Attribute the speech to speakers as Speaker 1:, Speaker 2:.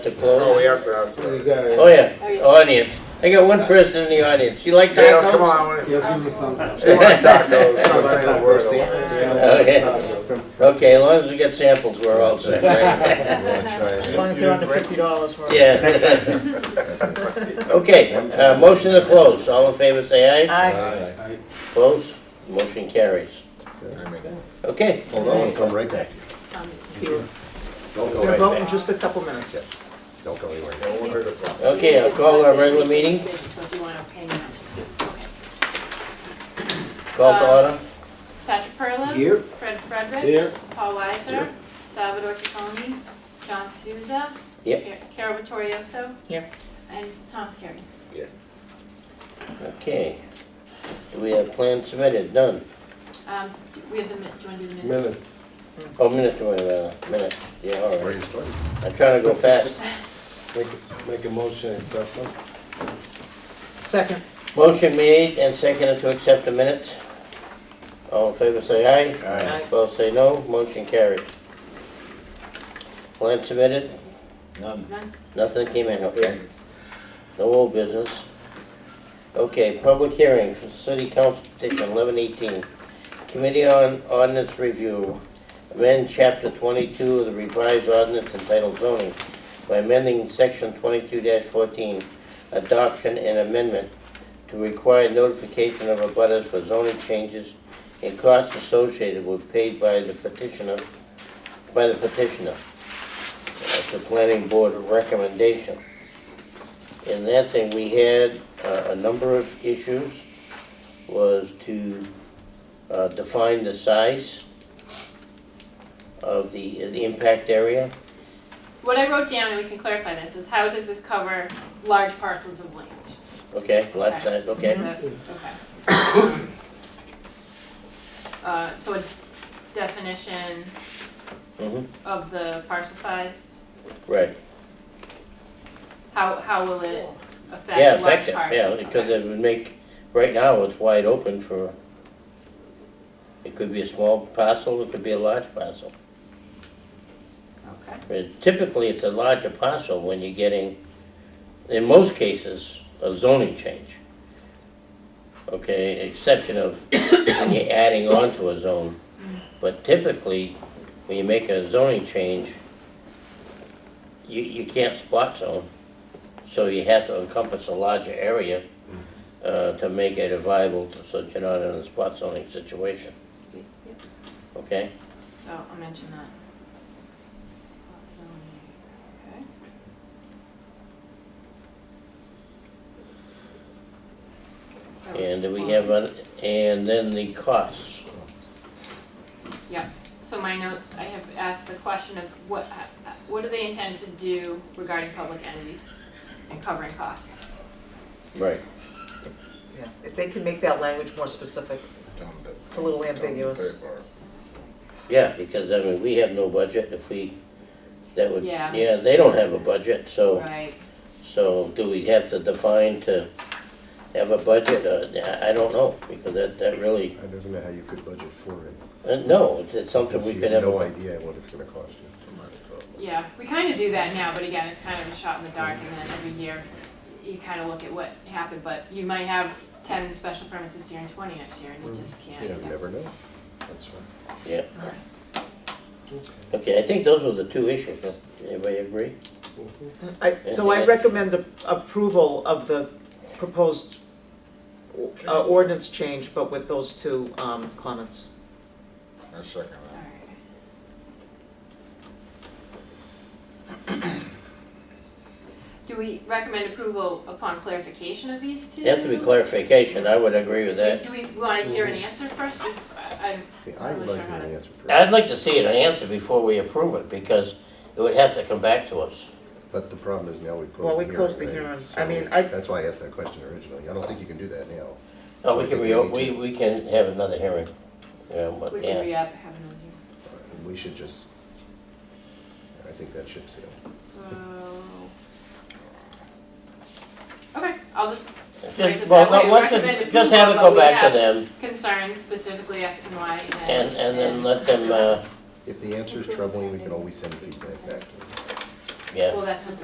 Speaker 1: to close?
Speaker 2: Oh, we have to ask
Speaker 3: You
Speaker 2: that.
Speaker 3: gotta-
Speaker 1: Oh, yeah, audience. I got one person in the audience. You like
Speaker 2: Dale,
Speaker 1: tacos?
Speaker 2: come on.
Speaker 4: Yes, give him a thumbs up.
Speaker 2: She wants tacos. Come on, say the word.
Speaker 1: Oh, Okay. Okay, as long as we get samples, we're all set, right?
Speaker 5: As long as they're under fifty dollars for it.
Speaker 1: Yeah. Okay, uh, motion to close. All in favor, say aye.
Speaker 5: Aye.
Speaker 1: Close. Motion carries. Okay.
Speaker 6: Hold on, I'll come right back. to you.
Speaker 5: You're
Speaker 6: Don't go
Speaker 5: gonna vote in
Speaker 6: anywhere.
Speaker 5: just a couple minutes.
Speaker 6: Don't go anywhere.
Speaker 2: Don't want her to come.
Speaker 1: Okay, I'll call our regular meeting.
Speaker 7: So if you want to hang on to this, okay.
Speaker 1: Call to order.
Speaker 7: Patrick Perla.
Speaker 4: Here.
Speaker 7: Fred Fredericks.
Speaker 3: Here.
Speaker 7: Paul Weiser. Salvador Caponi. John Souza.
Speaker 1: Yep.
Speaker 7: Ca- Carol Vittorioso.
Speaker 5: Here.
Speaker 7: And Tom Scarry.
Speaker 1: Okay. Do we have plans submitted? Done.
Speaker 7: Um, we have the minute, do you want to do the minute?
Speaker 3: Minutes.
Speaker 1: Oh, minute, uh, minute. Yeah, all
Speaker 6: Where
Speaker 1: right.
Speaker 6: you starting?
Speaker 1: I'm trying to go fast.
Speaker 3: Make, make a motion, accept them.
Speaker 5: Second.
Speaker 1: Motion made and seconded to accept the minutes. All in favor, say aye.
Speaker 5: Aye. Aye.
Speaker 1: Both say no, motion carries. Plan submitted,
Speaker 7: None?
Speaker 1: nothing came in, okay? No old business. Okay, public hearing for city council petition eleven eighteen. Committee on Ordinance Review, amend chapter twenty-two of the revised ordinance entitled zoning by amending section twenty-two fourteen, adoption and amendment to require notification of abutters for zoning changes and costs associated with paid by the petitioner, by the petitioner. That's the planning board recommendation. In that thing, we had uh, a number of issues, was to uh, define the size of the, the impact area.
Speaker 7: What I wrote down, and we can clarify this, is how does this cover large parcels of land?
Speaker 1: Okay, lot size, okay.
Speaker 7: Is that- Okay. Uh, so a definition
Speaker 1: Mhm.
Speaker 7: of the parcel size,
Speaker 1: Right,
Speaker 7: how, how will it affect
Speaker 1: yeah,
Speaker 7: large parcels?
Speaker 1: effective, yeah, because it would make, right now, it's wide open for, it could be a small parcel, it could be a large parcel.
Speaker 7: Okay.
Speaker 1: But Typically, it's a larger parcel when you're getting, in most cases, a zoning change. Okay, exception of when you're adding on to a zone. But typically, when you make a zoning change, you, you can't spot zone. So you have to encompass a larger area uh, to make it a viable, so that you're not in a spot zoning situation.
Speaker 7: Yep.
Speaker 1: Okay?
Speaker 7: So I'll mention that. Spot zoning, okay. That was
Speaker 1: And we
Speaker 7: one.
Speaker 1: have, a- and then the costs.
Speaker 7: So my notes, I have asked the question of what, what do they intend to do regarding public entities and covering costs?
Speaker 1: Right.
Speaker 8: Yeah, if they can make that language more specific, it's a little ambiguous.
Speaker 1: Yeah, because I mean, we have no budget if we, that would,
Speaker 7: Yeah.
Speaker 1: yeah, they don't have a budget, so,
Speaker 7: Right,
Speaker 1: so do we have to define to have a budget? Uh, I, I don't know, because that, that really,
Speaker 6: I don't know how you could budget for it.
Speaker 1: uh, no, it's something
Speaker 6: Because
Speaker 1: we
Speaker 6: you
Speaker 1: could
Speaker 6: have
Speaker 1: have.
Speaker 6: no idea what it's gonna cost you.
Speaker 7: yeah, we kind of do that now, but again, it's kind of a shot in the dark and then every year you kind of look at what happened, but you might have ten special permits this year and twenty next year and
Speaker 1: Mm-hmm.
Speaker 7: you just can't.
Speaker 6: You never know. That's right.
Speaker 1: Yeah. Okay, I think those were the two issues, huh? anybody agree?
Speaker 8: I, so I recommend a- approval of the proposed uh, ordinance change, but with those two um, comments.
Speaker 2: I second
Speaker 7: All
Speaker 2: that.
Speaker 7: right. Do we recommend approval upon clarification of these two?
Speaker 1: They have to be clarification, I would agree with that. Mm-hmm.
Speaker 7: Do we want to hear an answer first? If- I- I'm-
Speaker 6: See, I would like to hear an answer for
Speaker 1: I'd
Speaker 6: it.
Speaker 1: like to see an answer before we approve it, because it would have to come back to us.
Speaker 6: But the problem is now we closed the hearing.
Speaker 8: Well, we closed the
Speaker 6: right?
Speaker 8: hearing.
Speaker 6: So
Speaker 8: I mean, I-
Speaker 6: That's why I asked that question originally. I don't think you can do that now.
Speaker 1: No,
Speaker 6: So
Speaker 1: Oh, we
Speaker 6: I
Speaker 1: can
Speaker 6: think
Speaker 1: re,
Speaker 6: we
Speaker 1: we,
Speaker 6: need
Speaker 1: we can have another hearing. Yeah, but-
Speaker 7: We
Speaker 1: yeah.
Speaker 7: can re-up, have another hearing.
Speaker 6: And We should just, I think that should sail.
Speaker 7: So. Okay, I'll just, Raise
Speaker 1: Just,
Speaker 7: it
Speaker 1: well,
Speaker 7: that way.
Speaker 1: let- let's
Speaker 7: Recommend
Speaker 1: just, just have it go
Speaker 7: approval, but we
Speaker 1: back to
Speaker 7: have-
Speaker 1: them,
Speaker 7: concerns specifically X and Y and.
Speaker 1: and, and then let them, uh,
Speaker 6: If the answer is troubling, we can always send feedback back to them.
Speaker 1: yeah,
Speaker 7: Well, that's what the